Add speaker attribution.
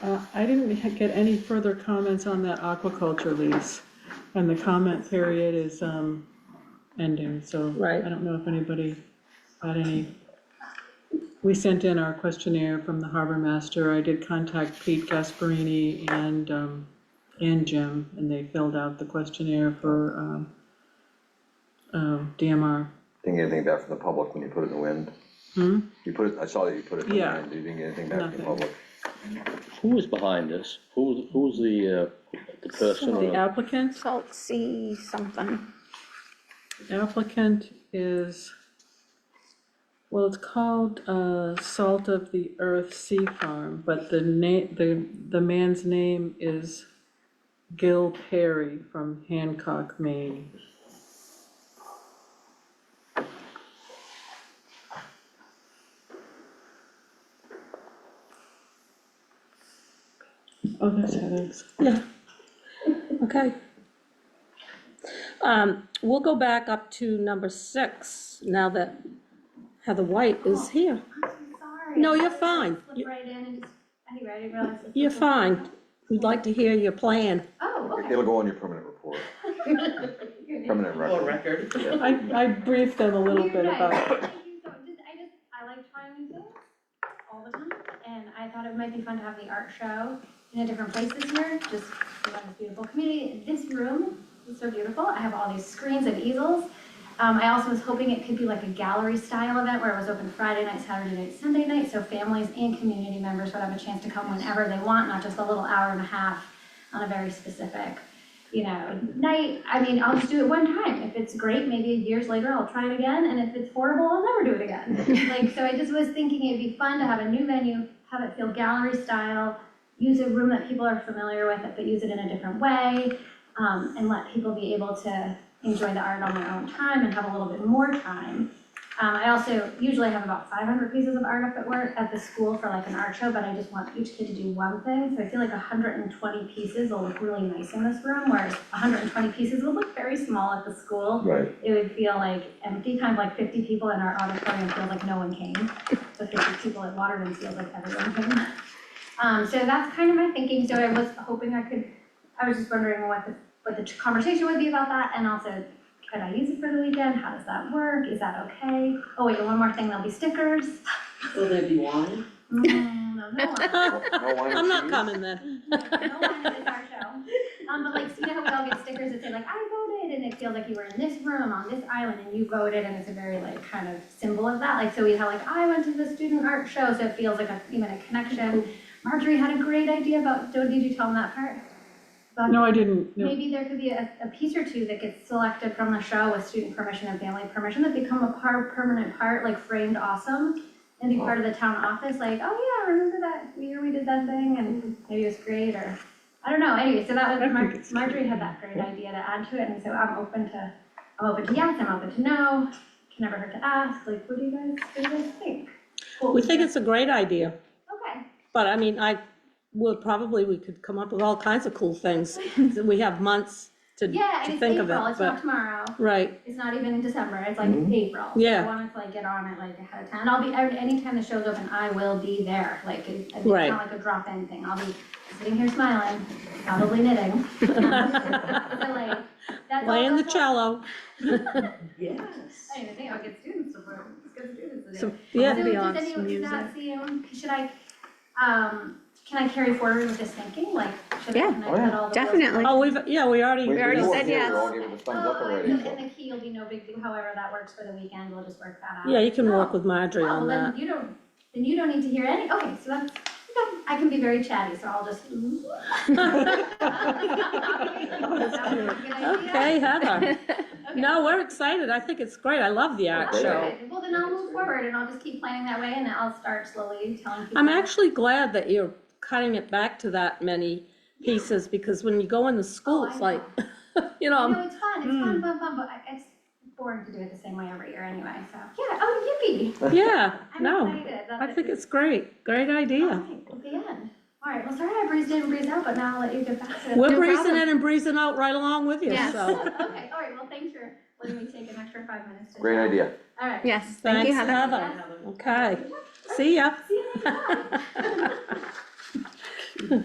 Speaker 1: Uh, I didn't get any further comments on that aquaculture lease. And the comment period is, um, ending, so.
Speaker 2: Right.
Speaker 1: I don't know if anybody had any. We sent in our questionnaire from the harbor master. I did contact Pete Gasparini and, um, and Jim, and they filled out the questionnaire for, um, um, DMR.
Speaker 3: Didn't get anything back from the public when you put it in the wind?
Speaker 1: Hmm?
Speaker 3: You put it, I saw that you put it in the
Speaker 1: Yeah.
Speaker 3: wind, you didn't get anything back from the
Speaker 1: Nothing.
Speaker 3: public.
Speaker 4: Who is behind this? Who, who's the, uh, the person
Speaker 1: The
Speaker 4: or
Speaker 1: applicant
Speaker 2: Salt sea something.
Speaker 1: applicant is, well, it's called, uh, Salt of the Earth Sea Farm, but the name, the, the man's name is Gil Perry from Hancock, Maine. Oh, that's Heather's.
Speaker 2: Yeah. Okay. Um, we'll go back up to number six, now that Heather White is here.
Speaker 5: I'm so sorry.
Speaker 2: No,
Speaker 5: I
Speaker 2: you're
Speaker 5: just
Speaker 2: fine. You-
Speaker 5: Slipped right in and just, anyway, I didn't realize. this was
Speaker 2: You're
Speaker 5: the-
Speaker 2: fine. We'd like to hear your plan.
Speaker 5: Oh, okay.
Speaker 3: It'll go on your permanent report,
Speaker 5: You're good.
Speaker 3: permanent record.
Speaker 6: record.
Speaker 1: I, I briefed them a little
Speaker 5: You
Speaker 1: bit
Speaker 5: guys,
Speaker 1: about
Speaker 5: thank you so- just- I just, I like trying new things all the time, and I thought it might be fun to have the art show in a different place this year, just around this beautiful community. This room is so beautiful. I have all these screens and easels. Um, I also was hoping it could be like a gallery style event where it was open Friday night, Saturday night, Sunday night, so families and community members would have a chance to come whenever they want, not just a little hour and a half on a very specific, you know, night. I mean, I'll just do it one time. If it's great, maybe years later I'll try it again, and if it's horrible, I'll never do it again. Like, so I just was thinking it'd be fun to have a new venue, have it feel gallery style, use a room that people are familiar with, but use it in a different way, um, and let people be able to enjoy the art on their own time and have a little bit more time. Um, I also usually have about five hundred pieces of art up at work, at the school for like an art show, but I just want each kid to do one thing, so I feel like hundred and twenty pieces will look really nice in this room, whereas hundred and twenty pieces will look very small at the school
Speaker 3: Right.
Speaker 5: it would feel like empty, kind of like fifty people in our auditorium feels like no one came. But fifty people at Waterman feels like everyone came. Um, so that's kind of my thinking, so I was hoping I could, I was just wondering what the, what the conversation would be about that, and also, could I use it for the weekend, how does that work, is that okay? Oh wait, and one more thing, there'll be stickers.
Speaker 6: Will there be wine?
Speaker 5: Mm, no, no one.
Speaker 3: No- no wine and
Speaker 2: I'm not
Speaker 3: cheese?
Speaker 2: coming then.
Speaker 5: No one is our show. Um, but like, so you know how we all get stickers that say like, I voted, and it feels like you were in this room on this island and you voted, and it's a very like kind of symbol of that, like, so we have like, I went to the student art show, so it feels like a, even a connection. Marjorie had a great idea about, don't, did you tell them that part? About-
Speaker 1: No, I didn't, no.
Speaker 5: Maybe there could be a, a piece or two that gets selected from the show with student permission and family permission that become a part, permanent part, like framed awesome. And be part of the town office, like, oh yeah, remember that year we did that thing and maybe it was great or, I don't know, anyway, so that
Speaker 1: I
Speaker 5: was,
Speaker 1: think
Speaker 5: Mar-
Speaker 1: it's cute.
Speaker 5: Marjorie had that great idea to add to it, and so I'm open to, I'm open to yes, I'm open to no. Can never hurt to ask, like, what do you guys, what do you guys think? What
Speaker 2: We
Speaker 5: would-
Speaker 2: think it's a great idea,
Speaker 5: Okay,
Speaker 2: but I mean, I, would probably, we could come up with all kinds of cool things. We have months to,
Speaker 5: yeah, and
Speaker 2: to
Speaker 5: it's
Speaker 2: think of
Speaker 5: April,
Speaker 2: it,
Speaker 5: it's not
Speaker 2: but,
Speaker 5: tomorrow.
Speaker 2: right,
Speaker 5: It's not even in December, it's like
Speaker 3: Mhm.
Speaker 5: April.
Speaker 2: Yeah.
Speaker 5: I wanted to like get on it like ahead of time, and I'll be, every- anytime the show's open, I will be there, like, it- it's
Speaker 2: Right.
Speaker 5: not like a drop-in thing, I'll be sitting here smiling, probably knitting. So like, that's all
Speaker 2: playing the
Speaker 5: that's all-
Speaker 2: cello.
Speaker 6: Yes.
Speaker 5: I didn't even think I would get students support, let's get students in there.
Speaker 2: So, yeah.
Speaker 5: So does anyone, does that seem, should I, um, can I carry forward with this thinking, like, should I
Speaker 7: Yeah.
Speaker 5: connect that all the?
Speaker 7: Definitely.
Speaker 2: Oh, we've, yeah, we already.
Speaker 3: We- we
Speaker 7: already
Speaker 3: weren't
Speaker 7: said
Speaker 3: here, We
Speaker 7: yes.
Speaker 3: all gave it a thumbs up
Speaker 5: Oh,
Speaker 3: already,
Speaker 5: and
Speaker 3: so.
Speaker 5: and the key will be no big deal, however that works for the weekend, we'll just work that out.
Speaker 2: Yeah, you can
Speaker 5: Oh.
Speaker 2: work with Marjorie
Speaker 5: Oh,
Speaker 2: on
Speaker 5: well,
Speaker 2: that.
Speaker 5: then you don't, then you don't need to hear any, okay, so that's, okay, I can be very chatty, so I'll just.
Speaker 2: Okay, Heather.
Speaker 5: Okay.
Speaker 2: No, we're excited. I think it's great. I love the art
Speaker 3: Okay.
Speaker 2: show.
Speaker 5: Alright, Well, then I'll move forward and I'll just keep planning that way and I'll start slowly telling people.
Speaker 2: I'm actually glad that you're cutting it back to that many pieces, because when you go in the school,
Speaker 5: Oh, I
Speaker 2: it's
Speaker 5: know.
Speaker 2: like, you
Speaker 5: No,
Speaker 2: know,
Speaker 5: it's fun, it's
Speaker 2: hmm.
Speaker 5: fun, fun, fun, but I- it's boring to do it the same way every year anyway, so, yeah, oh, yippee.
Speaker 2: yeah,
Speaker 5: I'm
Speaker 2: no.
Speaker 5: excited that
Speaker 2: I
Speaker 5: the-
Speaker 2: think it's great. Great idea.
Speaker 5: Alright, at the end. All right, well, sorry I breezed in, and breezed out, but now I'll let you get back to.
Speaker 2: We're
Speaker 7: No
Speaker 2: breezing
Speaker 7: problem.
Speaker 2: in and breezing out right along with you,
Speaker 7: Yes.
Speaker 2: so.
Speaker 5: Okay, all right, well, thanks for letting me take an extra five minutes to.
Speaker 3: Great idea.
Speaker 5: All right.
Speaker 7: Yes, thank
Speaker 2: Thanks,
Speaker 7: you, Heather.
Speaker 2: Heather. Okay, see ya.